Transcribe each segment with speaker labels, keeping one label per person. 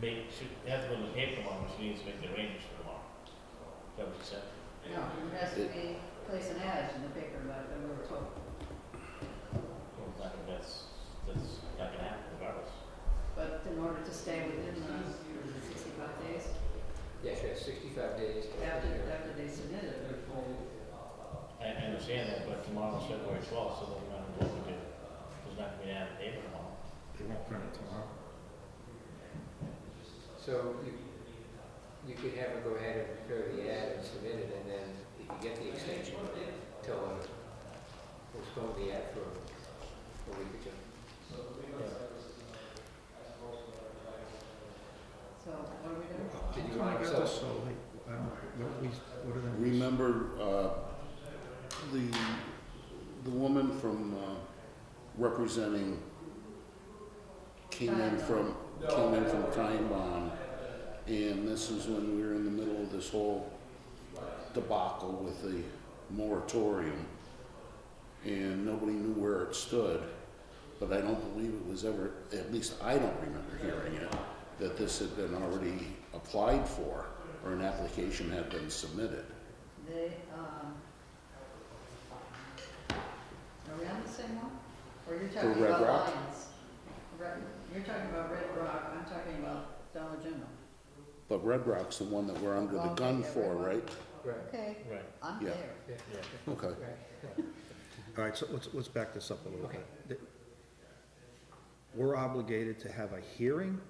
Speaker 1: make, she has to go to the paper tomorrow, but she needs to make the arrangements for tomorrow. So That was accepted.
Speaker 2: No, it has to be, place an ad in the paper, but we were told.
Speaker 1: Well, it's not gonna- that's, that's not gonna happen regardless.
Speaker 2: But in order to stay within the sixty-five days,
Speaker 3: Yeah, she has sixty-five days. to-
Speaker 2: after, after they submit it.
Speaker 1: I, I understand that, but tomorrow's February twelfth, so doesn't matter what we do. There's not gonna be an ad in the paper tomorrow.
Speaker 4: They won't print it tomorrow.
Speaker 3: So you, you could have her go ahead and prepare the ad and submit it, and then if you get the extension, tell them, postpone the ad for a week or two.
Speaker 2: So what are we doing?
Speaker 3: Did you
Speaker 4: How come
Speaker 3: want
Speaker 4: I got
Speaker 3: some-
Speaker 4: this so late? I don't, what we, what did I? miss?
Speaker 5: Remember, uh, the, the woman from, uh, representing came in from, came in from Time Bond, and this is when we were in the middle of this whole debacle with the moratorium, and nobody knew where it stood, but I don't believe it was ever, at least I don't remember hearing it, that this had been already applied for, or an application had been submitted.
Speaker 2: They, um, are we on the same one? Or you're talking
Speaker 5: Red
Speaker 2: about
Speaker 5: Rock?
Speaker 2: Lions? Red, you're talking about Red Rock, I'm talking about Dollar General.
Speaker 5: But Red Rock's the one that we're under the
Speaker 2: Well,
Speaker 5: gun
Speaker 2: yeah,
Speaker 5: for,
Speaker 2: Red Rock.
Speaker 5: right?
Speaker 3: Right,
Speaker 2: Okay,
Speaker 1: Right,
Speaker 2: I'm
Speaker 5: Yeah.
Speaker 2: there.
Speaker 1: yeah.
Speaker 5: Okay.
Speaker 3: right.
Speaker 4: All right, so let's, let's back this up a little
Speaker 3: Okay.
Speaker 4: bit. The- We're obligated to have a hearing?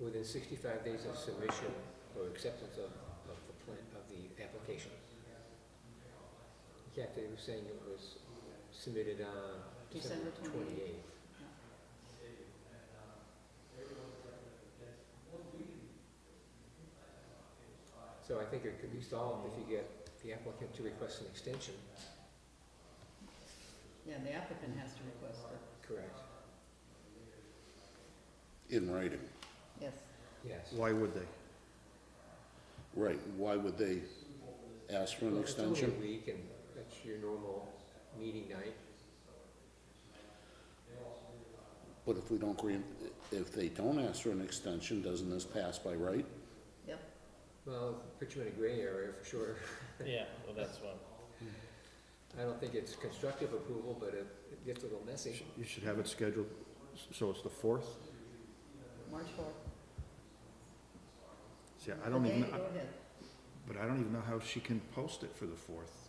Speaker 3: Within sixty-five days of submission or acceptance of, of the plan, of the application. Yeah, they were saying it was submitted on December
Speaker 2: December 28th.
Speaker 3: twenty-eighth. So I think it could be solved if you get the applicant to request an extension.
Speaker 2: Yeah, the applicant has to request it,
Speaker 3: Correct.
Speaker 5: In writing.
Speaker 2: yes.
Speaker 3: Yes.
Speaker 4: Why would they?
Speaker 5: Right. Why would they ask for an
Speaker 3: Well, it's only
Speaker 5: extension?
Speaker 3: a week and that's your normal meeting night.
Speaker 5: But if we don't grant, if they don't ask for an extension, doesn't this pass by right?
Speaker 2: Yep,
Speaker 3: Well, it puts you in a gray area for sure.
Speaker 1: Yeah, well, that's one.
Speaker 3: I don't think it's constructive approval, but it it gets a little messy.
Speaker 4: You should have it scheduled, s- so it's the fourth?
Speaker 2: March fourth.
Speaker 4: See, I don't even,
Speaker 2: Okay, Go ahead.
Speaker 4: but I don't even know how she can post it for the fourth.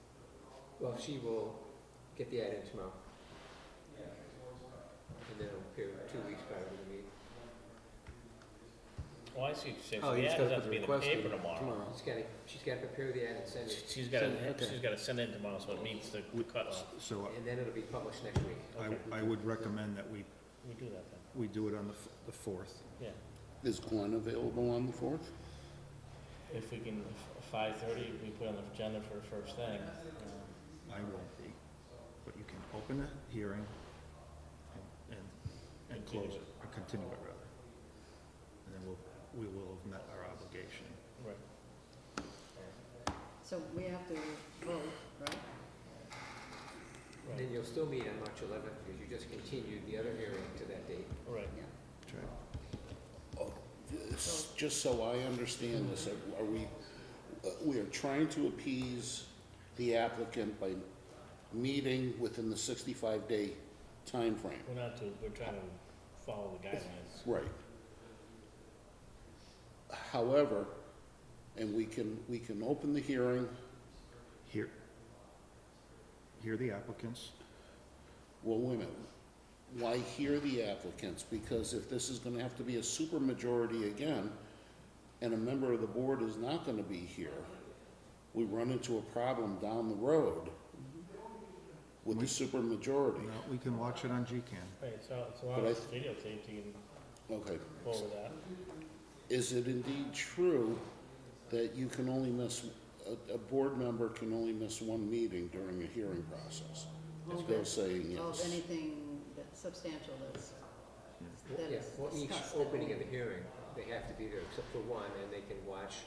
Speaker 3: Well, she will get the ad in tomorrow. And then it'll appear two weeks prior to the meeting.
Speaker 1: Oh, I see, so
Speaker 6: Oh,
Speaker 1: the
Speaker 6: you just gotta
Speaker 1: ad has
Speaker 6: put
Speaker 1: to
Speaker 6: the
Speaker 1: be in the
Speaker 6: request in
Speaker 1: paper tomorrow.
Speaker 3: She's gotta, she's gotta prepare the ad and send it,
Speaker 1: She's gotta,
Speaker 6: Send- okay.
Speaker 1: she's gotta send it tomorrow, so it meets the cutoff.
Speaker 4: So
Speaker 3: and then it'll be published next week.
Speaker 4: I,
Speaker 1: Okay,
Speaker 4: I would recommend that we,
Speaker 1: we do that then,
Speaker 4: we do it on the, f- the fourth.
Speaker 1: yeah.
Speaker 5: Is Glenn available on the fourth?
Speaker 1: If we can, five thirty, we put on the agenda for first thing. um,
Speaker 4: I won't be, but you can open a hearing and, and, and close it, or continue it rather. And then we'll, we will have met our obligation.
Speaker 1: Right.
Speaker 2: So we have to vote, right?
Speaker 3: And
Speaker 1: Right,
Speaker 3: then you'll still meet on March eleventh, because you just continued the other hearing to that date.
Speaker 1: right.
Speaker 2: Yeah.
Speaker 4: That's right.
Speaker 5: This- Just so I understand this, are we, uh, we are trying to appease the applicant by meeting within the sixty-five day time frame.
Speaker 1: We're not to, we're trying to follow the guidelines.
Speaker 5: Right. However, and we can, we can open the hearing,
Speaker 4: Hear, hear the applicants.
Speaker 5: well, wait a minute. Why hear the applicants? Because if this is gonna have to be a supermajority again, and a member of the board is not gonna be here, we run into a problem down the road with the supermajority.
Speaker 4: No, we can watch it on GCAN.
Speaker 1: Right, so, so
Speaker 5: But
Speaker 1: on
Speaker 5: I-
Speaker 1: videotape, you can
Speaker 5: Okay.
Speaker 1: forward that.
Speaker 5: Is it indeed true that you can only miss, a, a board member can only miss one meeting during a hearing process?
Speaker 2: Well,
Speaker 5: They're
Speaker 2: that-
Speaker 5: saying
Speaker 2: Well,
Speaker 5: yes.
Speaker 2: anything that's substantial that's, that
Speaker 3: Yeah,
Speaker 2: is
Speaker 3: for each
Speaker 2: discussed.
Speaker 3: opening of the hearing, they have to be there, except for one, and they can watch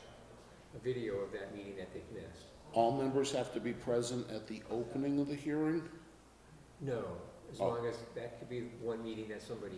Speaker 3: a video of that meeting that they've missed.
Speaker 5: All members have to be present at the opening of the hearing?
Speaker 3: No, as
Speaker 5: Oh.
Speaker 3: long as, that could be one meeting that somebody